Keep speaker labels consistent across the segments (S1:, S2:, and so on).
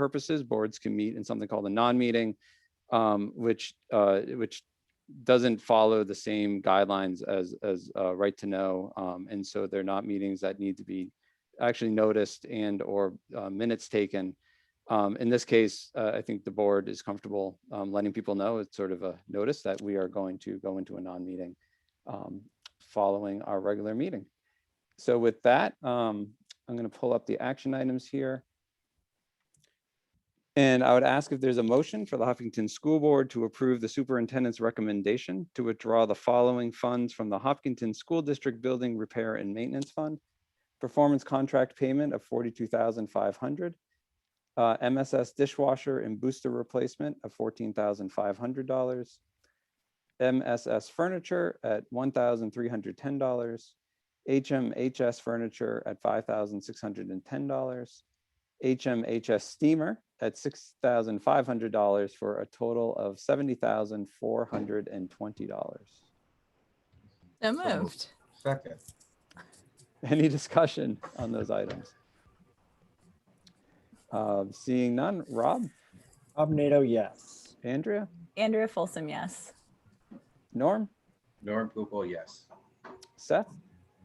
S1: purposes, boards can meet in something called a non-meeting, um, which, uh, which doesn't follow the same guidelines as, as, uh, right to know. Um, and so they're not meetings that need to be actually noticed and or, uh, minutes taken. Um, in this case, uh, I think the board is comfortable, um, letting people know it's sort of a notice that we are going to go into a non-meeting, um, following our regular meeting. So with that, um, I'm going to pull up the action items here. And I would ask if there's a motion for the Hopkinton School Board to approve the superintendent's recommendation to withdraw the following funds from the Hopkinton School District Building Repair and Maintenance Fund. Performance contract payment of forty-two thousand five hundred. Uh, MSS dishwasher and booster replacement of fourteen thousand five hundred dollars. MSS furniture at one thousand three hundred ten dollars. HMHS furniture at five thousand six hundred and ten dollars. HMHS steamer at six thousand five hundred dollars for a total of seventy thousand four hundred and twenty dollars.
S2: So
S3: moved.
S2: moved.
S3: Second,
S1: Any discussion on those items? Uh, seeing none, Rob,
S4: Rob Nato, yes.
S1: Andrea,
S2: Andrea Folsom, yes.
S1: Norm,
S3: Norm Poopel, yes.
S1: Seth,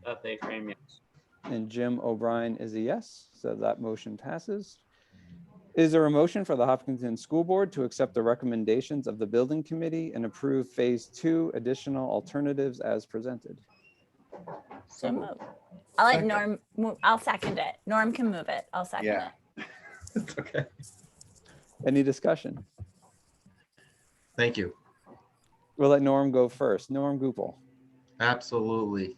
S5: Seth A. Uh, Frame, yes.
S1: and Jim O'Brien is a yes, so that motion passes. Is there a motion for the Hopkinton School Board to accept the recommendations of the Building Committee and approve Phase Two additional alternatives as presented?
S2: So moved. I'll let
S3: Second.
S2: Norm, move. I'll second it. Norm can move it. I'll second
S3: Yeah.
S2: it.
S3: It's okay.
S1: Any discussion?
S6: Thank you.
S1: We'll let Norm go first. Norm Goupel,
S6: Absolutely.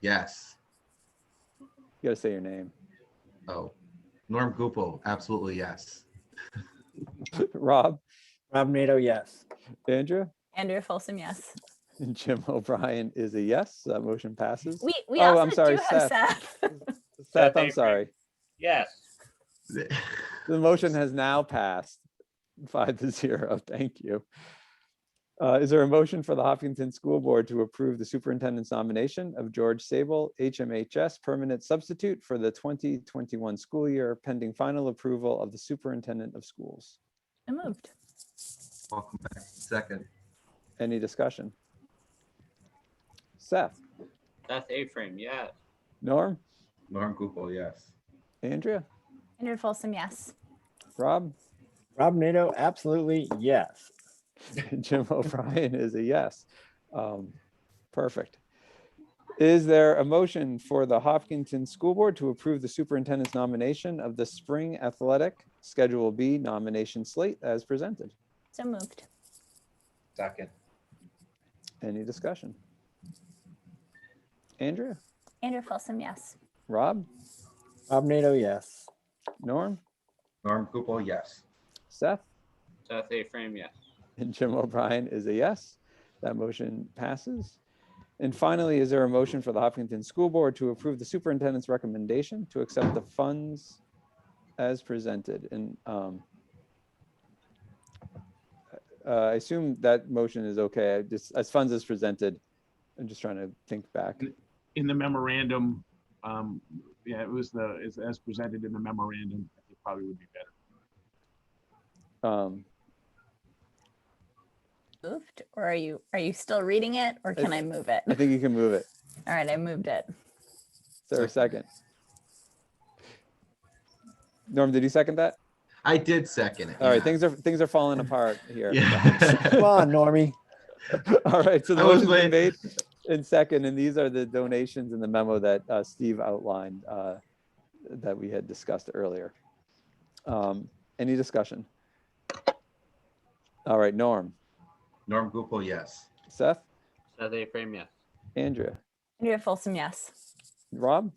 S6: Yes.
S1: you gotta say your name.
S6: Oh, Norm Gupel, absolutely yes.
S1: Rob,
S4: Rob Nato, yes.
S1: Andrea,
S2: Andrea Folsom, yes.
S1: and Jim O'Brien is a yes, that motion passes.
S2: We, we
S1: Oh,
S2: also
S1: I'm sorry,
S2: do have Seth.
S1: Seth,
S5: Avery.
S1: I'm sorry.
S5: Yes.
S1: The motion has now passed five to zero. Thank you. Uh, Is there a motion for the Hopkinton School Board to approve the superintendent's nomination of George Sable, HMHS permanent substitute for the 2021 school year pending final approval of the superintendent of schools?
S2: So moved.
S6: Welcome back. Second,
S1: Any discussion? Seth,
S5: Seth A. Frame, yes.
S1: Norm,
S3: Norm Poopel, yes.
S1: Andrea,
S2: Andrea Folsom, yes.
S1: Rob,
S4: Rob Nato, absolutely yes.
S1: Jim O'Brien is a yes. Um, Perfect. Is there a motion for the Hopkinton School Board to approve the superintendent's nomination of the spring athletic Schedule B nomination slate as presented?
S2: So moved.
S3: Second.
S1: Any discussion? Andrea,
S2: Andrea Folsom, yes.
S1: Rob,
S4: Rob Nato, yes.
S1: Norm,
S6: Norm Gupel, yes.
S1: Seth,
S5: Seth A. Frame, yes.
S1: and Jim O'Brien is a yes. That motion passes. And finally, is there a motion for the Hopkinton School Board to approve the superintendent's recommendation to accept the funds as presented? And um, uh, I assume that motion is okay, I just, as funds as presented. I'm just trying to think back.
S7: in the memorandum, um, yeah, it was the, as, as presented in the memorandum, I think probably would be better.
S1: Um,
S2: Moved. Or are you, are you still reading it or can I move it?
S1: I think you can move it.
S2: All right, I moved it.
S1: Is there a second? Norm, did you second that?
S6: I did second it.
S1: All right,
S6: yeah.
S1: things are, things are falling apart here.
S4: Come
S6: Yeah.
S4: on, Normie.
S1: All right, so the
S6: I was
S1: motion's been
S6: waiting.
S1: made and second, and these are the donations in the memo that uh, Steve outlined uh, that we had discussed earlier. Um, Any discussion? All right, Norm,
S6: Norm Gupel, yes.
S1: Seth,
S5: Seth A. Frame, yes.
S1: Andrea,
S2: Andrea Folsom, yes.
S1: Rob?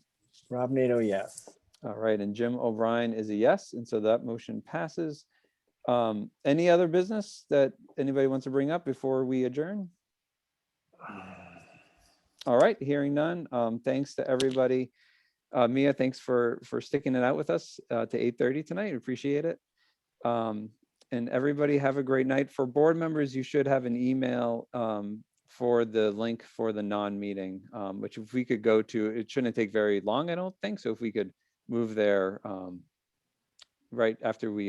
S4: Rob Nato, yes.
S1: All right, and Jim O'Brien is a yes, and so that motion passes. Um, Any other business that anybody wants to bring up before we adjourn? All right, hearing none. Um, Thanks to everybody. Uh, Mia, thanks for, for sticking it out with us uh, to 8:30 tonight. Appreciate it. Um, And everybody have a great night. For board members, you should have an email um, for the link for the non-meeting, um, which if we could go to, it shouldn't take very long, I don't think. So if we could move there um, right after we